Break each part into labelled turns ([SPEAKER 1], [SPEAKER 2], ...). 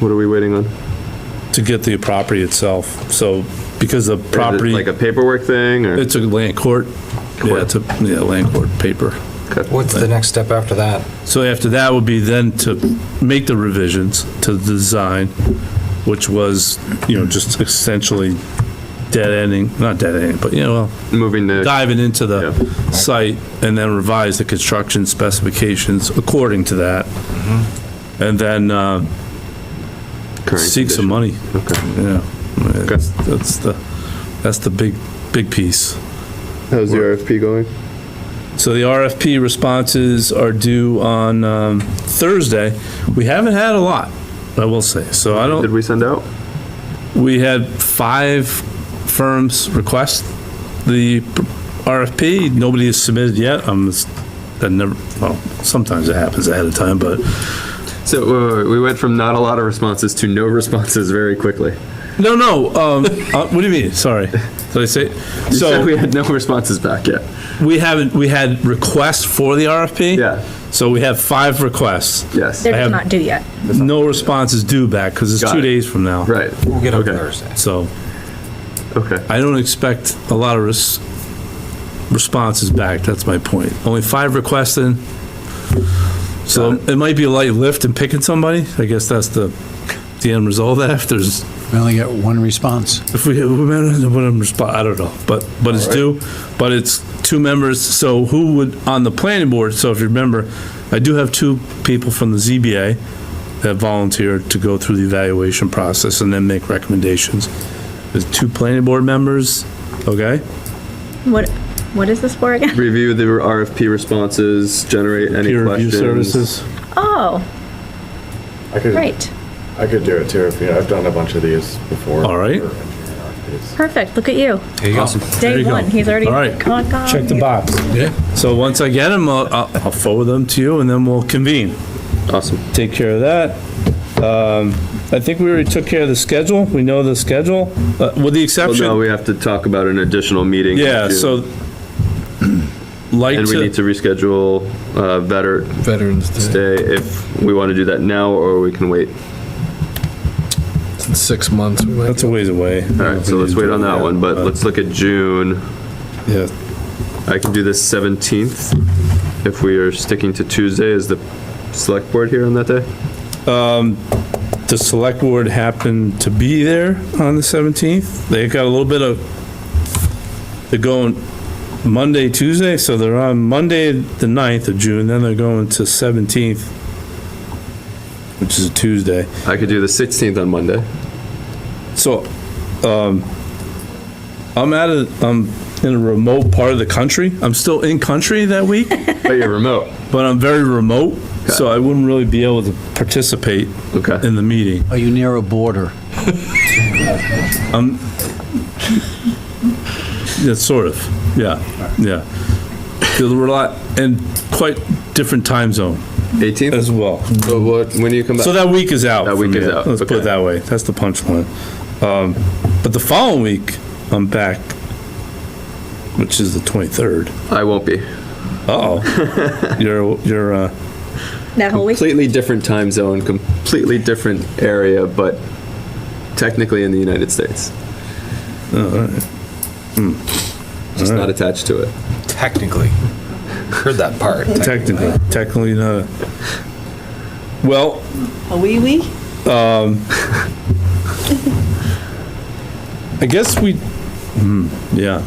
[SPEAKER 1] What are we waiting on? Is
[SPEAKER 2] to get the property itself. So because the
[SPEAKER 1] it
[SPEAKER 2] property,
[SPEAKER 1] Like a paperwork thing or?
[SPEAKER 2] it's a land court. Yeah, it's a, yeah, land court paper.
[SPEAKER 3] What's the next step after that?
[SPEAKER 2] So after that would be then to make the revisions to the design, which was, you know, just essentially dead ending, not dead ending, but you know,
[SPEAKER 1] Moving
[SPEAKER 2] well,
[SPEAKER 1] to,
[SPEAKER 2] diving into the site and then revise the construction specifications according to that.
[SPEAKER 1] Mm-hmm.
[SPEAKER 2] And then, uh,
[SPEAKER 1] current
[SPEAKER 2] seek some
[SPEAKER 1] condition.
[SPEAKER 2] money,
[SPEAKER 1] Okay.
[SPEAKER 2] yeah. That's, that's the, that's the big, big piece.
[SPEAKER 1] How's the RFP going?
[SPEAKER 2] So the RFP responses are due on um, Thursday. We haven't had a lot, I will say. So I
[SPEAKER 1] Did
[SPEAKER 2] don't,
[SPEAKER 1] we send out?
[SPEAKER 2] we had five firms request the RFP. Nobody has submitted yet. I'm, that never, well, sometimes it happens ahead of time, but
[SPEAKER 1] So wait, wait, wait, we went from not a lot of responses to no responses very quickly.
[SPEAKER 2] no, no. um, uh, What do you mean? Sorry. Did I say?
[SPEAKER 1] You said
[SPEAKER 2] So
[SPEAKER 1] we had no responses back yet.
[SPEAKER 2] we haven't, we had requests for the RFP.
[SPEAKER 1] Yeah.
[SPEAKER 2] So we have five requests.
[SPEAKER 1] Yes.
[SPEAKER 2] I
[SPEAKER 4] They're
[SPEAKER 2] have-
[SPEAKER 4] not due yet.
[SPEAKER 2] No response is due back because it's
[SPEAKER 1] Got
[SPEAKER 2] two
[SPEAKER 1] it.
[SPEAKER 2] days from now.
[SPEAKER 1] Right.
[SPEAKER 3] We'll get on
[SPEAKER 1] Okay.
[SPEAKER 3] Thursday.
[SPEAKER 2] So
[SPEAKER 1] Okay.
[SPEAKER 2] I don't expect a lot of res- responses back. That's my point. Only five requests in. So
[SPEAKER 1] Got
[SPEAKER 2] it might be a light lift in picking somebody. I guess that's the, the end result of that. If there's,
[SPEAKER 5] We only get one response.
[SPEAKER 2] if we, we might not know what I'm respond, I don't know, but, but it's due. But it's two members. So who would, on the planning board, so if you remember, I do have two people from the ZBA that volunteered to go through the evaluation process and then make recommendations. There's two planning board members, okay?
[SPEAKER 4] What, what is this for again?
[SPEAKER 1] Review the RFP responses, generate any
[SPEAKER 2] peer review
[SPEAKER 1] questions.
[SPEAKER 2] services.
[SPEAKER 4] Oh,
[SPEAKER 6] I could,
[SPEAKER 4] right.
[SPEAKER 6] I could do it too if you. I've done a bunch of these before.
[SPEAKER 2] All right.
[SPEAKER 4] Perfect. Look at you.
[SPEAKER 3] There you go.
[SPEAKER 2] There
[SPEAKER 4] Day
[SPEAKER 2] you go.
[SPEAKER 4] one. He's already.
[SPEAKER 2] All right.
[SPEAKER 4] Con, con.
[SPEAKER 2] box.
[SPEAKER 5] Yeah.
[SPEAKER 2] So once I get them, I'll, I'll I'll forward them to you and then we'll convene.
[SPEAKER 1] Awesome.
[SPEAKER 2] Take care of that. Um, I think we already took care of the schedule. We know the schedule, uh, with the
[SPEAKER 1] Well, no,
[SPEAKER 2] exception.
[SPEAKER 1] we have to talk about an additional meeting. in
[SPEAKER 2] Yeah,
[SPEAKER 1] June.
[SPEAKER 2] so like
[SPEAKER 1] And we need to
[SPEAKER 2] to,
[SPEAKER 1] reschedule, uh, veteran
[SPEAKER 5] Veterans Day,
[SPEAKER 1] Day if we want to do that now or we can wait.
[SPEAKER 5] It's in six months. We might-
[SPEAKER 2] that's a ways away.
[SPEAKER 1] All right, so let's wait on that one, but
[SPEAKER 2] Uh,
[SPEAKER 1] let's look at June.
[SPEAKER 2] Yeah,
[SPEAKER 1] I can do the 17th if we are sticking to Tuesday. Is the select board here on that day?
[SPEAKER 2] the select board happened to be there on the 17th. They got a little bit of, they're going Monday, Tuesday, so they're on Monday, the 9th of June, then they're going to 17th, which is a Tuesday.
[SPEAKER 1] I could do the 16th on Monday.
[SPEAKER 2] So, um, I'm out of, I'm in a remote part of the country. I'm still in country that week,
[SPEAKER 1] But you're remote.
[SPEAKER 2] but I'm very remote, so I wouldn't really be able to participate
[SPEAKER 1] Okay.
[SPEAKER 2] in the meeting.
[SPEAKER 5] Are Oh, you near a border?
[SPEAKER 2] Yeah, sort of, yeah, yeah. There were a lot, and quite different time zone
[SPEAKER 1] 18th?
[SPEAKER 2] as well.
[SPEAKER 1] So what, when do you come back?
[SPEAKER 2] So that week is out.
[SPEAKER 1] That
[SPEAKER 2] for
[SPEAKER 1] week
[SPEAKER 2] me.
[SPEAKER 1] is out,
[SPEAKER 2] Let's put
[SPEAKER 1] okay.
[SPEAKER 2] it that way. That's the punchline. Um, But the following week, I'm back, which is the 23rd.
[SPEAKER 1] I won't be.
[SPEAKER 2] Uh-oh. You're, you're, uh,
[SPEAKER 4] That whole week.
[SPEAKER 1] Completely different time zone, completely different area, but technically in the United States. Just not attached to it.
[SPEAKER 3] Technically. Heard that part.
[SPEAKER 2] technically, technically not. Well, um,
[SPEAKER 7] A wee wee?
[SPEAKER 2] I guess we, hmm, yeah,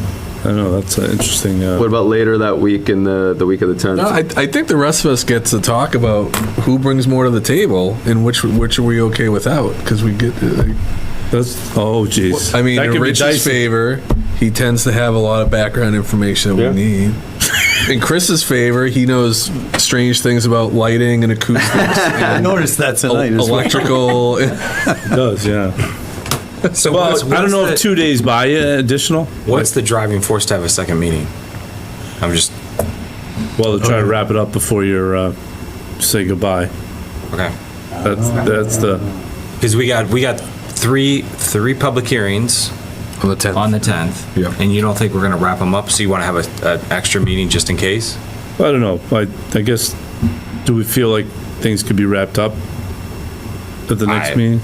[SPEAKER 2] I know, that's an interesting,
[SPEAKER 1] What
[SPEAKER 2] uh,
[SPEAKER 1] about later that week in the, the week of the 10th?
[SPEAKER 8] No, I, I think the rest of us get to talk about who brings more to the table and which which are we okay without because we get. uh,
[SPEAKER 2] that's, oh jeez.
[SPEAKER 8] I mean,
[SPEAKER 2] That
[SPEAKER 8] in
[SPEAKER 2] could be
[SPEAKER 8] Rich's
[SPEAKER 2] dicey.
[SPEAKER 8] favor, he tends to have a lot of background information that we need. In Chris's favor, he knows strange things about lighting and acoustics,
[SPEAKER 5] I noticed that
[SPEAKER 8] Oh,
[SPEAKER 5] tonight.
[SPEAKER 8] electrical.
[SPEAKER 2] It Does, yeah.
[SPEAKER 3] So
[SPEAKER 2] Well,
[SPEAKER 3] what's-
[SPEAKER 2] I don't know if
[SPEAKER 3] what's
[SPEAKER 2] two days by you additional.
[SPEAKER 3] the- What's the driving force to have a second meeting? I'm just,
[SPEAKER 2] Well, to try to wrap it up before you're, uh, say goodbye.
[SPEAKER 3] okay.
[SPEAKER 2] That's, that's the,
[SPEAKER 3] Because we got, we got three, three public hearings
[SPEAKER 8] On the 10th.
[SPEAKER 3] on the 10th.
[SPEAKER 8] Yep.
[SPEAKER 3] And you don't think we're going to wrap them up? So you want to have a, an extra meeting just in case?
[SPEAKER 2] I don't know, I, I guess, do we feel like things could be wrapped up at the next
[SPEAKER 3] I-
[SPEAKER 2] meeting?